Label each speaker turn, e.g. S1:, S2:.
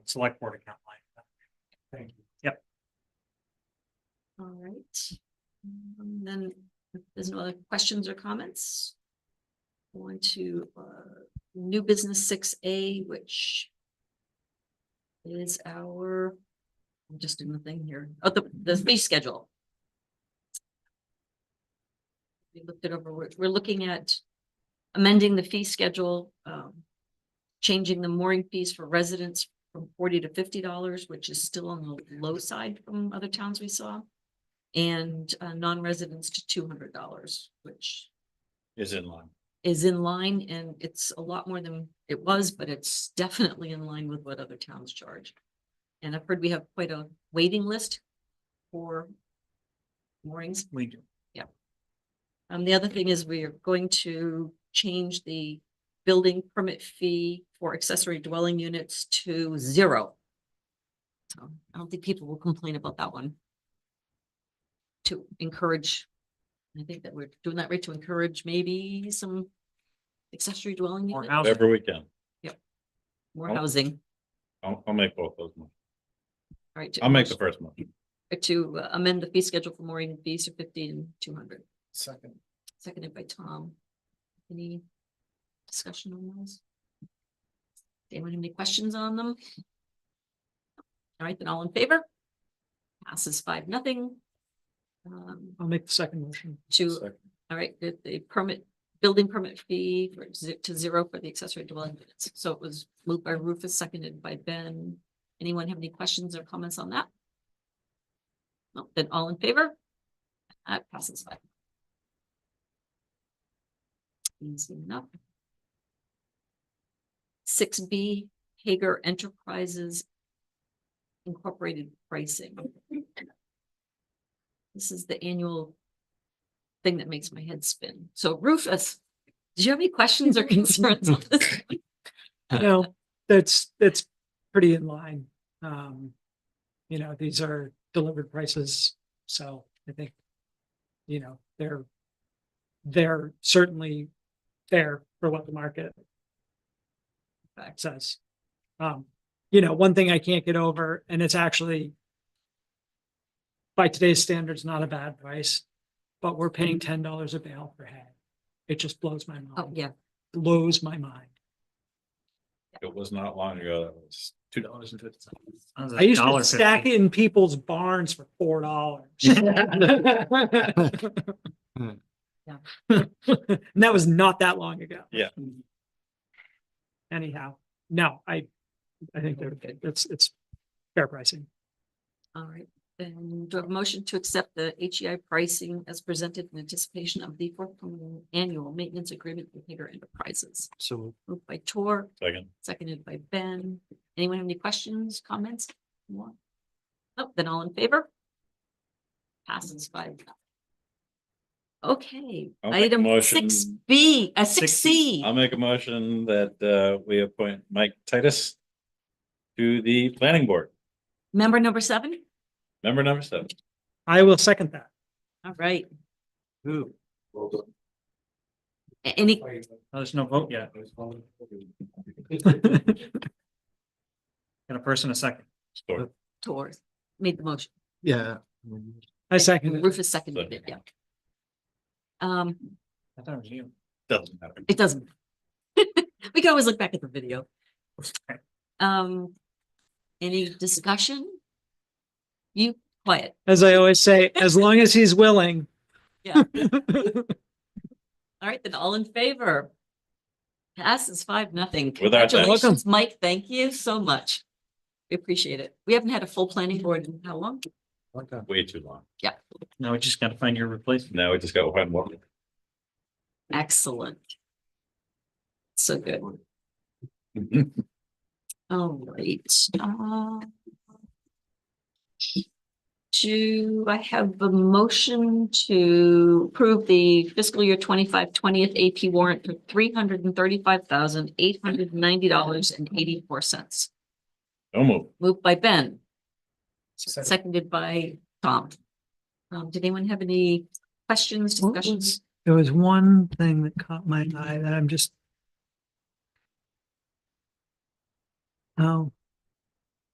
S1: select board account line. Thank you. Yep,
S2: All right. Um, Then, if there's no other questions or comments? Going to uh, new business six A, which is our, I'm just doing the thing here, oh, the, the fee schedule. We looked it over, we're, we're looking at amending the fee schedule, um, changing the mooring fees for residents from forty to fifty dollars, which is still on the low side from other towns we saw. And uh, non-residents to two hundred dollars, which
S3: is in line.
S2: is in line and it's a lot more than it was, but it's definitely in line with what other towns charge. And I've heard we have quite a waiting list for moorings.
S1: we do.
S2: Um, the other thing is we are going to change the building permit fee for accessory dwelling units to zero. So I don't think people will complain about that one. To encourage, I think that we're doing that right to encourage maybe some accessory dwelling
S1: More
S2: unit,
S1: housing.
S3: Every weekend.
S2: more
S3: help.
S2: housing.
S3: I'll, I'll make both those. motions.
S2: All right, to-
S3: I'll make the first one.
S2: To uh, amend the fee schedule for mooring fees to fifty and two hundred,
S1: Second.
S2: seconded by Tom. Any discussion on those? Anyone have any questions on them? All right, then all in favor? Passes five, nothing. Um,
S1: I'll make the second motion.
S2: to, all right, the, the permit, building permit fee for ze- to zero for the accessory dwelling units. So it was moved by Rufus, seconded by Ben. Anyone have any questions or comments on that? No, then all in favor? That passes by. Easy enough. Six B, Hager Enterprises Incorporated pricing. This is the annual thing that makes my head spin. So Rufus, do you have any questions or concerns on this?
S4: No, that's, that's pretty in line. Um, you know, these are delivered prices, so I think, you know, they're, they're certainly fair for what the market says. Um, you know, one thing I can't get over, and it's actually by today's standards, not a bad price, but we're paying ten dollars a bale for hay. It just blows my
S2: Mm-hmm. Oh,
S4: mind,
S2: yeah,
S4: blows my mind.
S3: It was not long ago. That was two dollars and fifty cents.
S4: I used to stack it in people's barns for four dollars. And that was not that long ago.
S3: Yeah.
S4: Anyhow, no, I, I think they're, it's, it's fair pricing.
S2: all right. Then do I have a motion to accept the HEI pricing as presented in anticipation of the forthcoming annual maintenance agreement with Hager Enterprises?
S1: So.
S2: Moved by Tor,
S3: Second,
S2: seconded by Ben. Anyone have any questions, comments? More? Oh, then all in favor? Passes five. nothing. Okay,
S3: I'll make a
S2: item
S3: motion.
S2: six B, uh, six
S1: 6B.
S2: C.
S3: I'll make a motion that, uh, we appoint Mike Titus to the planning board,
S2: Member number seven?
S3: member number seven.
S4: I will second that.
S2: All right.
S1: Who?
S2: A- Any,
S1: Oh, There's no vote yet. Got a person a second.
S3: Store.
S2: Tor made the motion.
S5: Yeah.
S4: I second it.
S2: Rufus seconded it, yeah. Um,
S1: I thought it was you.
S3: Doesn't matter.
S2: it doesn't. We can always look back at the video. Um, any discussion? You quiet.
S4: As I always say, as long as he's willing.
S2: Yeah. All right, then all in favor? Passes five, nothing.
S3: With our thanks.
S2: Congratulations, Mike. Thank you so much. We appreciate it. We haven't had a full planning board in how long?
S3: Way too long.
S1: Now we just gotta find your replacement.
S3: Now we just got one more.
S2: Excellent. So good. All right. uh, Do I have a motion to approve the fiscal year 25 20th AP warrant for three hundred and thirty-five thousand, eight hundred and ninety dollars and eighty-four cents?
S3: Don't move.
S2: Moved by Ben,
S1: Second.
S2: seconded by Tom. Um, did anyone have any questions,
S4: What was-
S2: discussions?
S4: There was one thing that caught my eye that I'm just. Oh,